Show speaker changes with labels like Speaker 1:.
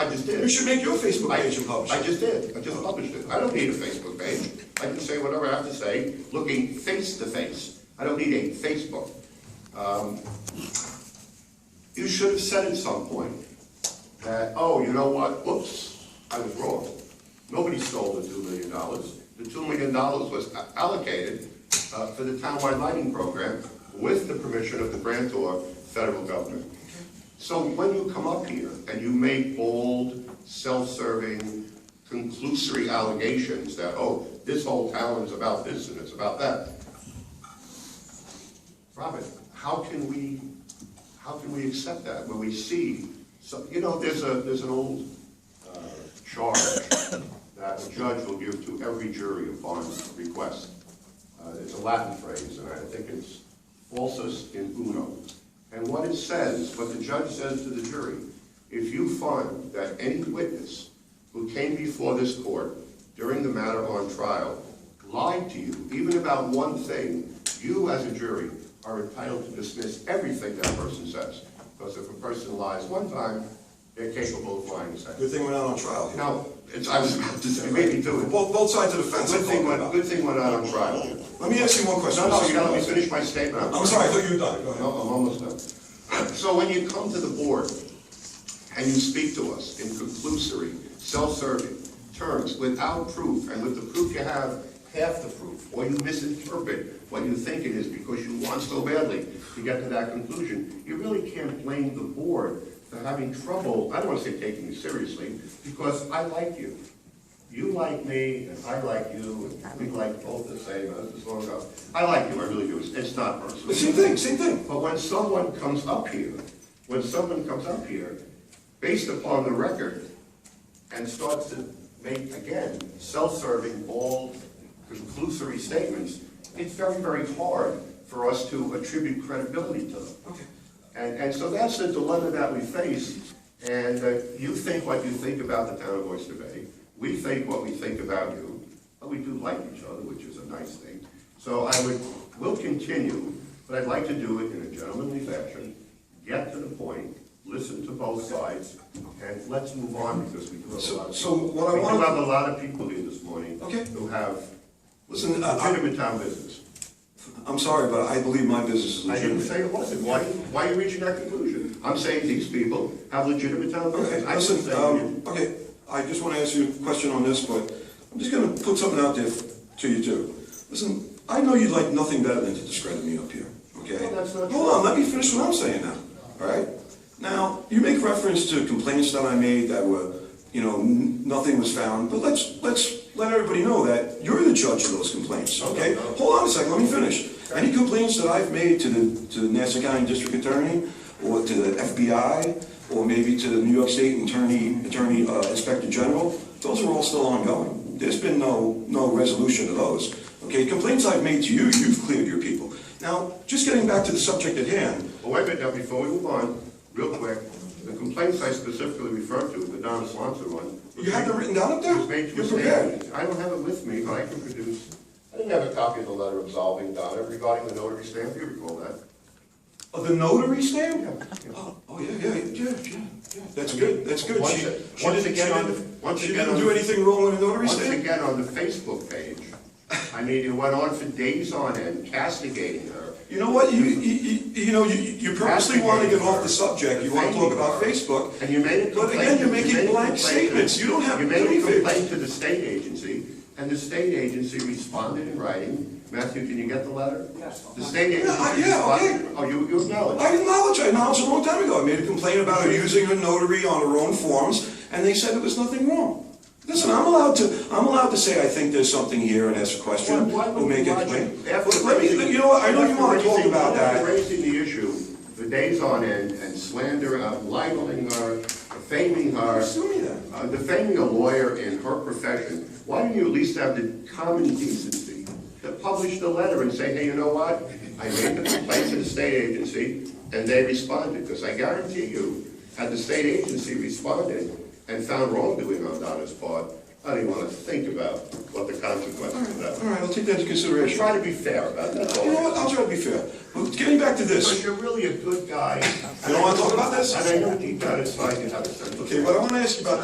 Speaker 1: just
Speaker 2: You
Speaker 1: did.
Speaker 2: should make your Facebook page and publish
Speaker 1: I
Speaker 2: it.
Speaker 1: just did, I just published it. I don't need a Facebook page. I can say whatever I have to say, looking face to face. I don't need a Facebook. Um, You should have said at some point that, oh, you know what, whoops, I was wrong. Nobody stole the two million dollars. The two million dollars was a- allocated uh, for the townwide lighting program with the permission of the grantor, federal government. So when you come up here and you make bold, self-serving, conclusory allegations that, oh, this whole town is about this and it's about that. Robert, how can we, how can we accept that when we see, so, you know, there's a, there's an old uh, charge that a judge will give to every jury upon request. Uh, It's a Latin phrase, and I think it's falsus in uno. And what it says, what the judge says to the jury, if you find that any witness who came before this court during the matter on trial lied to you, even about one thing, you as a jury are entitled to dismiss everything that person says. Because if a person lies one time, they're capable of lying a second.
Speaker 2: Good thing we're not on trial here.
Speaker 1: Now, it's, I was about to say, maybe do it.
Speaker 2: Both, both sides of the fence I'm
Speaker 1: Good thing
Speaker 2: talking
Speaker 1: went,
Speaker 2: about.
Speaker 1: good thing went out on trial.
Speaker 2: Let me ask you one question.
Speaker 1: No, no, you gotta let me finish my statement.
Speaker 2: I'm sorry, I thought you were done. Go
Speaker 1: No,
Speaker 2: ahead.
Speaker 1: I'm almost done. So when you come to the board and you speak to us in conclusory, self-serving terms without proof, and with the proof you have, half the proof, or you misinterpret what you think it is because you want so badly to get to that conclusion, you really can't blame the board for having trouble, I don't wanna say taking you seriously, because I like you. You like me, and I like you, and we like both the same, uh, as long as, I like you, I really do, It's- it's not personal.
Speaker 2: But Same thing, same thing.
Speaker 1: But when someone comes up here, when someone comes up here, based upon the record, and starts to make, again, self-serving, bald, conclusory statements, it's very, very hard for us to attribute credibility to them.
Speaker 2: Okay.
Speaker 1: And, and so that's the dilemma that we face, and uh, you think what you think about the town of Oyster Bay, we think what we think about you, but we do like each other, which is a nice thing. So I would, we'll continue, but I'd like to do it in a gentlemanly fashion, get to the point, listen to both sides, and let's move on, because we do have a
Speaker 2: So-
Speaker 1: lot of people.
Speaker 2: so what I
Speaker 1: We
Speaker 2: wanted-
Speaker 1: do have a lot of people here this morning.
Speaker 2: Okay.
Speaker 1: Who have
Speaker 2: Listen, uh, I- I-
Speaker 1: legitimate town business.
Speaker 2: I'm sorry, but I believe my business is
Speaker 1: I didn't say
Speaker 2: legitimate.
Speaker 1: it wasn't. Why, why are you reaching that conclusion? I'm saying these people have legitimate town
Speaker 2: Okay,
Speaker 1: business. I didn't
Speaker 2: listen,
Speaker 1: say you didn't.
Speaker 2: um, okay, I just want to ask you a question on this, but I'm just going to put something out there f- to you too. Listen, I know you'd like nothing better than to discredit me up here, okay?
Speaker 1: No, that's not
Speaker 2: Hold on, let me finish what I'm saying now, all right? Now, you make reference to complaints that I made that were, you know, n- nothing was found, but let's, let's let everybody know that you're the judge of those complaints, okay? Hold on a second, let me finish. Any complaints that I've made to the, to the Nassau County District Attorney, or to the FBI, or maybe to the New York State Attorney, Attorney, uh, Inspector General, those are all still ongoing. There's been no, no resolution to those, okay? Complaints I've made to you, you've cleared your people. Now, just getting back to the subject at hand,
Speaker 1: Well, Wait a minute now, before we move on, real quick, the complaints I specifically referred to, the Donna Swanson one.
Speaker 2: You have it written down up there?
Speaker 1: was made to
Speaker 2: You're
Speaker 1: a
Speaker 2: prepared.
Speaker 1: stand. I don't have it with me, but I can produce. I didn't have a copy of the letter absolving Donna regarding the notary stamp. You recall that?
Speaker 2: Of the notary stamp?
Speaker 1: Yeah, yeah.
Speaker 2: Oh, oh, yeah, yeah, yeah, yeah, yeah, that's good, that's good.
Speaker 1: Once
Speaker 2: She-
Speaker 1: it-
Speaker 2: she
Speaker 1: once
Speaker 2: didn't-
Speaker 1: again
Speaker 2: she
Speaker 1: on
Speaker 2: didn't-
Speaker 1: the- once
Speaker 2: She
Speaker 1: again
Speaker 2: didn't
Speaker 1: on
Speaker 2: do
Speaker 1: the-
Speaker 2: anything wrong with a notary
Speaker 1: Once
Speaker 2: stamp?
Speaker 1: again, on the Facebook page, I mean, it went on for days on end castigating her.
Speaker 2: You know what, you, you, you- you know, you, you purposely want to get off the subject, you want to talk about Facebook.
Speaker 1: And you made a complaint.
Speaker 2: But again, you're making
Speaker 1: you made a
Speaker 2: blank
Speaker 1: complaint to-
Speaker 2: statements. You don't have
Speaker 1: You made a
Speaker 2: anything.
Speaker 1: complaint to the state agency, and the state agency responded in writing. Matthew, can you get the letter? Yes. The state agency
Speaker 2: Yeah, I- yeah, okay.
Speaker 1: responded. Oh, you, you acknowledge.
Speaker 2: I acknowledge, I acknowledged a long time ago, I made a complaint about her using her notary on her own forms, and they said there was nothing wrong. Listen, I'm allowed to, I'm allowed to say I think there's something here and ask a question,
Speaker 1: Why- why would
Speaker 2: or make
Speaker 1: you
Speaker 2: a
Speaker 1: lodge
Speaker 2: complaint.
Speaker 1: it? After
Speaker 2: Let me,
Speaker 1: raising-
Speaker 2: you know what, I know you want to
Speaker 1: after
Speaker 2: talk
Speaker 1: raising-
Speaker 2: about
Speaker 1: after
Speaker 2: that.
Speaker 1: Raising the issue for days on end and slander, uh, libeling her, defaming her.
Speaker 2: Sue me then.
Speaker 1: uh, defending a lawyer in her profession, why don't you at least have the common decency to publish the letter and say, hey, you know what? I made the complaint to the state agency, and they responded, because I guarantee you, had the state agency responded and found wrongdoing on Donna's part, I don't even want to think about what the consequences of that
Speaker 2: All
Speaker 1: were.
Speaker 2: right, I'll take that into consideration.
Speaker 1: Try to be fair about that.
Speaker 2: You know what, I'll try to be fair. But getting back to
Speaker 1: Because
Speaker 2: this,
Speaker 1: you're really a good guy.
Speaker 2: You don't wanna talk about this?
Speaker 1: And I know deep down inside you have a sense of.
Speaker 2: okay, what I want to ask you about